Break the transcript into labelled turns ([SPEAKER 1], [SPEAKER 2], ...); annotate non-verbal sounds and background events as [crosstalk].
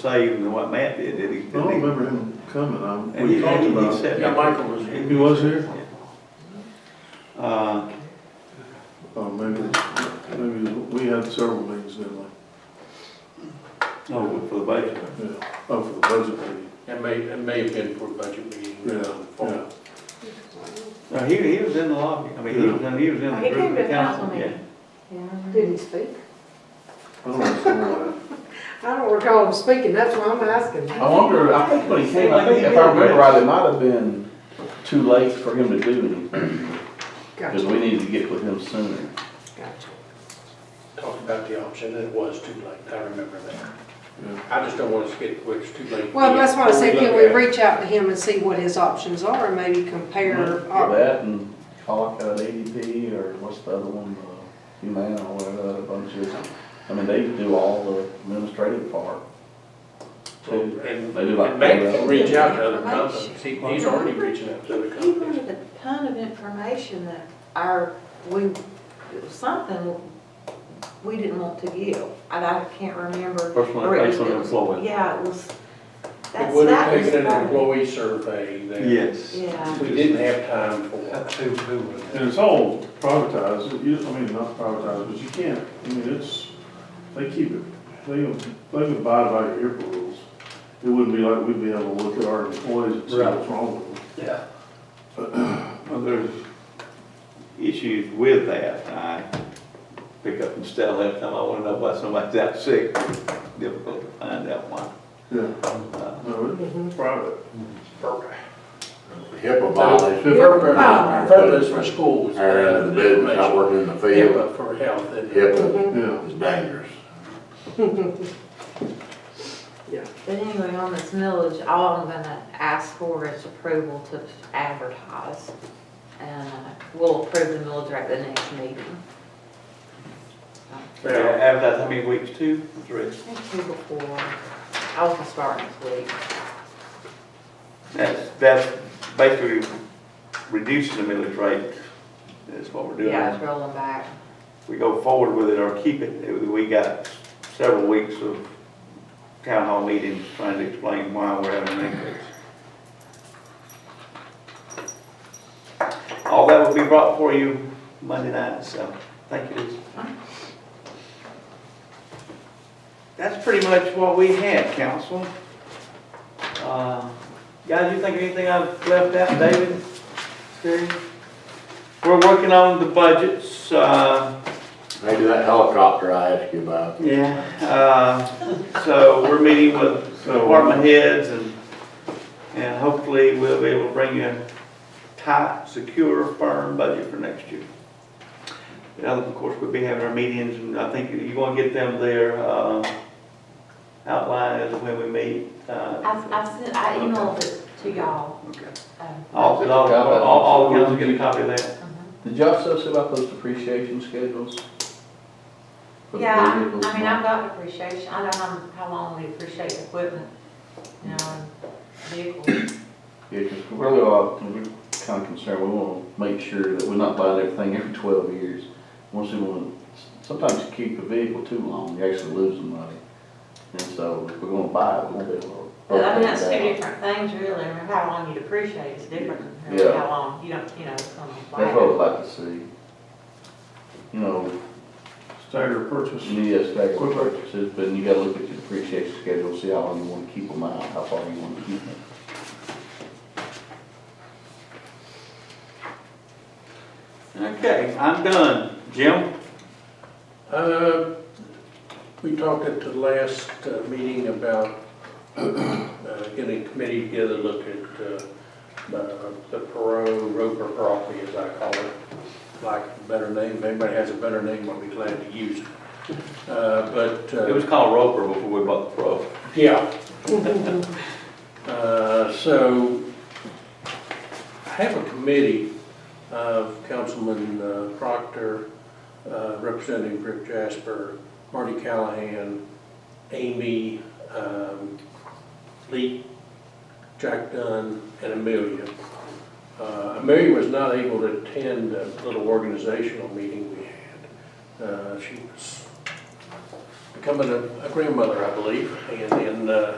[SPEAKER 1] say even than what Matt did, did he?
[SPEAKER 2] I don't remember him coming, I,
[SPEAKER 1] And he-
[SPEAKER 2] Oh, we talked
[SPEAKER 1] he- he
[SPEAKER 2] about it.
[SPEAKER 1] said-
[SPEAKER 3] Yeah, Michael was here.
[SPEAKER 2] He was here?
[SPEAKER 1] Uh,
[SPEAKER 2] Oh, maybe, maybe, we had several meetings, didn't we?
[SPEAKER 1] no, for the budget.
[SPEAKER 2] Yeah, oh, for the budget meeting.
[SPEAKER 3] It may, it may have been for a budget meeting.
[SPEAKER 2] Yeah,
[SPEAKER 3] uh, fall.
[SPEAKER 2] yeah.
[SPEAKER 1] No, he, he was in the lobby, I mean, he was in, he was in the
[SPEAKER 4] Oh, He
[SPEAKER 1] group.
[SPEAKER 4] came to
[SPEAKER 1] of
[SPEAKER 4] the
[SPEAKER 1] council,
[SPEAKER 4] council
[SPEAKER 1] yeah.
[SPEAKER 4] meeting. Did he speak?
[SPEAKER 2] I don't know, somewhere.
[SPEAKER 4] I don't recall him speaking, that's why I'm asking.
[SPEAKER 5] I wonder, I think when he came, I think if I remember right, it might have been too late for him to do anything, because
[SPEAKER 4] Gotcha,
[SPEAKER 5] we needed to get with him sooner.
[SPEAKER 4] gotcha.
[SPEAKER 3] Talked about the option, and it was too late, I remember that.
[SPEAKER 2] Yeah.
[SPEAKER 3] I just don't want us to get, where it's too late.
[SPEAKER 4] Well, that's why I said, can
[SPEAKER 3] Before
[SPEAKER 4] we
[SPEAKER 3] look
[SPEAKER 4] reach out to him and see what his options are and maybe compare?
[SPEAKER 6] uh,
[SPEAKER 5] For
[SPEAKER 4] op-
[SPEAKER 5] that and call out ADP or what's the other one, uh, Humana or whatever, that bunch is. I mean, they do all the administrative part.
[SPEAKER 3] at it. And,
[SPEAKER 5] They do like-
[SPEAKER 3] and Matt can reach out to other companies, He- he's already reaching out to other
[SPEAKER 6] He
[SPEAKER 3] companies.
[SPEAKER 6] wanted a ton of information that our, we, it was something we didn't want to give, and I can't remember.
[SPEAKER 1] Personal
[SPEAKER 6] or it was-
[SPEAKER 1] information on
[SPEAKER 6] it was-
[SPEAKER 1] employee.
[SPEAKER 6] Yeah, it was,
[SPEAKER 3] It
[SPEAKER 6] that's,
[SPEAKER 3] would have
[SPEAKER 6] that was.
[SPEAKER 3] taken an
[SPEAKER 6] the part.
[SPEAKER 3] employee survey that
[SPEAKER 1] Yes.
[SPEAKER 6] Yeah.
[SPEAKER 3] we didn't have time for.
[SPEAKER 2] And it's all privatized, you, I mean, not privatized, but you can't, I mean, it's, they keep it, they, they abide by your airport rules. It wouldn't be like we'd be able to look at our employees and see what's wrong with them.
[SPEAKER 3] Yeah.
[SPEAKER 1] Well, there's issues with that, I pick up and stell every time I wanna know why somebody's out sick, difficult to find out why.
[SPEAKER 2] Yeah,
[SPEAKER 1] Uh,
[SPEAKER 2] no, it's private.
[SPEAKER 7] HIPAA violation,
[SPEAKER 3] Purpose, purpose for schools.
[SPEAKER 7] hiring into the business, not working in the field,
[SPEAKER 3] HIPAA for health. and-
[SPEAKER 7] HIPAA
[SPEAKER 2] Yeah,
[SPEAKER 7] is dangerous.
[SPEAKER 6] But anyway, on this millage, all I'm gonna ask for is approval to advertise. And uh, we'll approve the millage at the next meeting.
[SPEAKER 1] yeah, Advertise how many weeks, two, three?
[SPEAKER 6] Thank you before, I was gonna start next week.
[SPEAKER 1] That's, that's basically reducing the millage rate, is what we're doing.
[SPEAKER 6] Yeah, it's rolling back.
[SPEAKER 1] we go forward with it or keep it, it- we got several weeks of town hall meetings trying to explain why we're having an increase. All that will be brought for you Monday night, so thank you. Lisa. That's pretty much what we had, council. Uh, Guys, you think of anything I've left out, David? Terry? We're working on the budgets, uh,
[SPEAKER 7] Maybe that helicopter I asked you about.
[SPEAKER 1] yeah, uh, so we're meeting with department heads and, and hopefully we'll be able to bring you a tight, secure, firm budget for next year. Now, of course, we'll be having our meetings and I think you're gonna get them their, uh, outline as to when we meet.
[SPEAKER 6] I,
[SPEAKER 1] uh,
[SPEAKER 6] I sent, I emailed it to y'all.
[SPEAKER 1] Okay.
[SPEAKER 6] um,
[SPEAKER 1] All, all, all, all of you get a copy of that.
[SPEAKER 6] mhm.
[SPEAKER 5] Did y'all still see about those depreciation schedules? For the
[SPEAKER 6] Yeah, I I
[SPEAKER 5] vehicles?
[SPEAKER 6] mean, I've got depreciation, I know how, how long we depreciate equipment, you know, and vehicles.
[SPEAKER 5] Yeah, 'cause we really are, we're kind of concerned, we want to make sure that we're not buying everything every twelve years. Once we want, sometimes you keep a vehicle too long, you actually lose the money. And so if we're going to buy it, we're going to be able to.
[SPEAKER 6] But I mean, that's two different things really, I mean, how long you depreciate is different than
[SPEAKER 5] Yeah.
[SPEAKER 6] how long, you don't, you know, it's gonna
[SPEAKER 5] That's what I'd
[SPEAKER 6] last.
[SPEAKER 5] like to see. You know,
[SPEAKER 2] staggered purchase.
[SPEAKER 5] you need to stagger purchases, but you gotta look at your depreciation schedule, see how long you want to keep them out, how far you want to keep them.
[SPEAKER 1] Okay, I'm done. Jim?
[SPEAKER 3] Uh, We talked at the last uh, meeting about uh, getting a committee together, to look at uh, uh, the Perot Roper property, as I call it, like a better name, if anybody has a better name, I'll be glad to use it. Uh, But,
[SPEAKER 1] It
[SPEAKER 3] uh,
[SPEAKER 1] was called Roper before we bought the Pro.
[SPEAKER 3] yeah. [laughs] Uh, So, I have a committee of Councilman uh, Proctor, uh, representing Rick Jasper, Marty Callahan, Amy, um, Lee, Jack Dunn, and Amelia. Uh, Amelia was not able to attend a little organizational meeting we had. Uh, She was becoming a a grandmother, I believe, and, and, uh,